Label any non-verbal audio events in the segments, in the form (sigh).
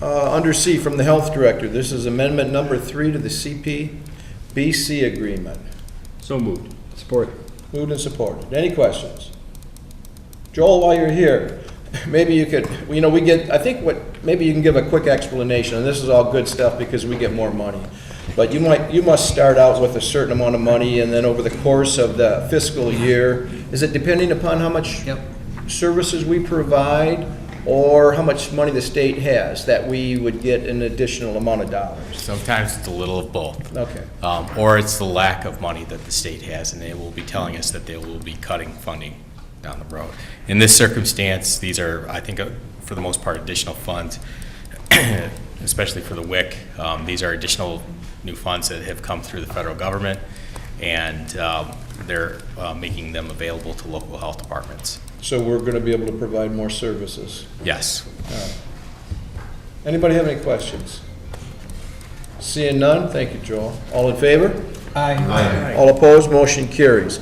Uh, Under C, from the Health Director, this is amendment number three to the CPBC agreement. So moved. Support. Moved and supported. Any questions? Joel, while you're here, (laughs) maybe you could, you know, we get, I think what, maybe you can give a quick explanation, and this is all good stuff because we get more money. But you might, you must start out with a certain amount of money, and then over the course of the fiscal year, is it depending upon how much Yep. services we provide, or how much money the state has, that we would get an additional amount of dollars? Sometimes it's a little of both. Okay. Um, Or it's the lack of money that the state has, and they will be telling us that they will be cutting funding down the road. In this circumstance, these are, I think, uh, for the most part, additional funds, (coughs) especially for the WIC. Um, These are additional new funds that have come through the federal government, and um, they're uh, making them available to local health departments. So we're gonna be able to provide more services. Yes. Anybody have any questions? Seeing none, thank you, Joel. All in favor? Aye. All opposed, motion carries.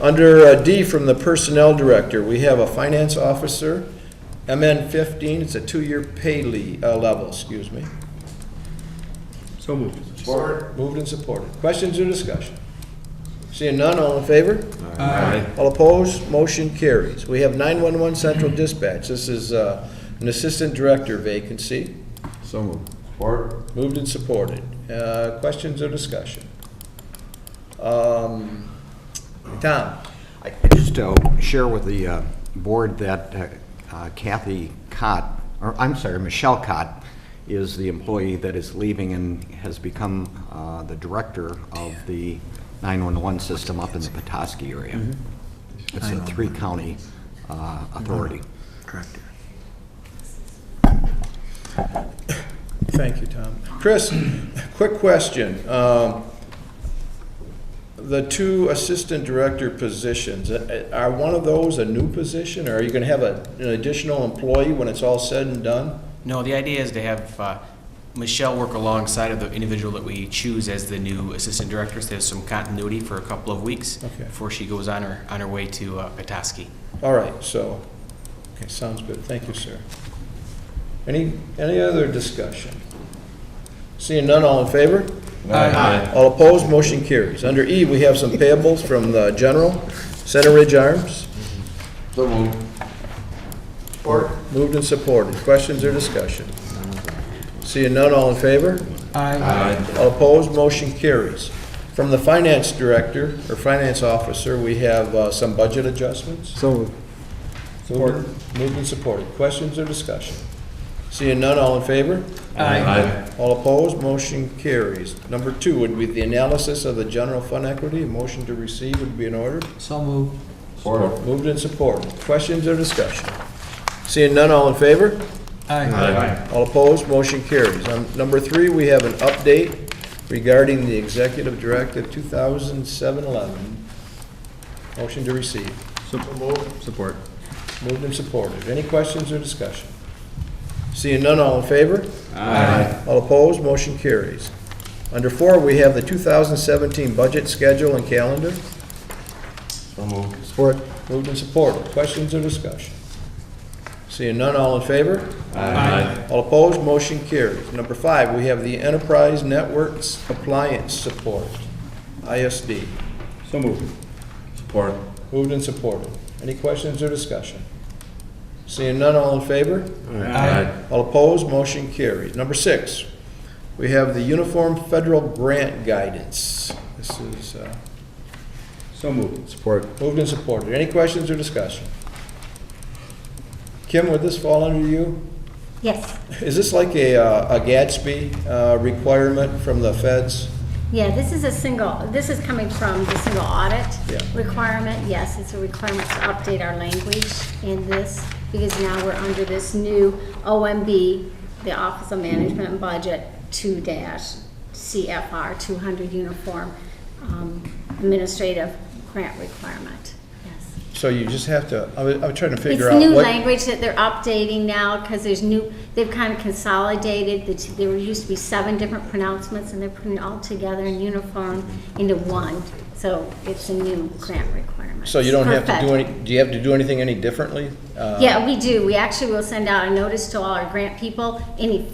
Under uh, D from the Personnel Director, we have a Finance Officer, MN 15, it's a two-year pay le- uh, level, excuse me. So moved. Moved and supported. Questions or discussion? Seeing none, all in favor? All opposed, motion carries. We have 911 Central Dispatch. This is uh, an Assistant Director vacancy. So moved. Moved and supported. Uh, Questions or discussion? Um, Tom? I I just uh, share with the uh, board that uh, uh, Kathy Cott, or I'm sorry, Michelle Cott is the employee that is leaving and has become uh, the director of the 911 system up in the Petoskey area. It's a three-county uh, authority. Thank you, Tom. Chris, quick question. Um, The two assistant director positions, uh, uh, are one of those a new position, or are you going to have a- an additional employee when it's all said and done? No, the idea is to have uh, Michelle work alongside of the individual that we choose as the new assistant director, so there's some continuity for a couple of weeks Okay. before she goes on her, on her way to uh, Petoskey. All right, so, okay, sounds good. Thank you, sir. Any, any other discussion? Seeing none, all in favor? Aye. All opposed, motion carries. Under E, we have some payables from the general, Center Ridge Arms. So moved. Moved and supported. Questions or discussion? Seeing none, all in favor? Aye. All opposed, motion carries. From the finance director, or finance officer, we have uh, some budget adjustments. So moved. Support. Moved and supported. Questions or discussion? Seeing none, all in favor? Aye. All opposed, motion carries. Number two would be the analysis of the general fund equity. A motion to receive would be in order. So moved. Moved and supported. Questions or discussion? Seeing none, all in favor? Aye. All opposed, motion carries. On number three, we have an update regarding the Executive Directive 2007-11. Motion to receive. Support. Moved and supported. Any questions or discussion? Seeing none, all in favor? Aye. All opposed, motion carries. Under four, we have the 2017 budget schedule and calendar. Support. Moved and supported. Questions or discussion? Seeing none, all in favor? Aye. All opposed, motion carries. Number five, we have the Enterprise Networks Appliance Support, ISD. So moved. Support. Moved and supported. Any questions or discussion? Seeing none, all in favor? Aye. All opposed, motion carries. Number six, we have the Uniform Federal Grant Guidance. This is uh, So moved. Support. moved and supported. Any questions or discussion? Kim, would this fall under you? Yes, Is this like a, uh, a Gatsby uh, requirement from the feds? yeah, this is a single, this is coming from the single audit Yeah. requirement. Yes, it's a requirement to update our language in this, because now we're under this new OMB, the Office of Management and Budget, two dash CFR, two hundred uniform um, administrative grant requirement, yes. So you just have to, I was, I was trying to figure it's out new what. language that they're updating now because there's new they've kind of consolidated the two, there were used to be seven different pronouncements and they're putting it all together in uniform into one so it's a new grant requirement So you don't have to do Perfect. any, do you have to do anything any differently? Uh, yeah we do we actually will send out a notice to all our grant people any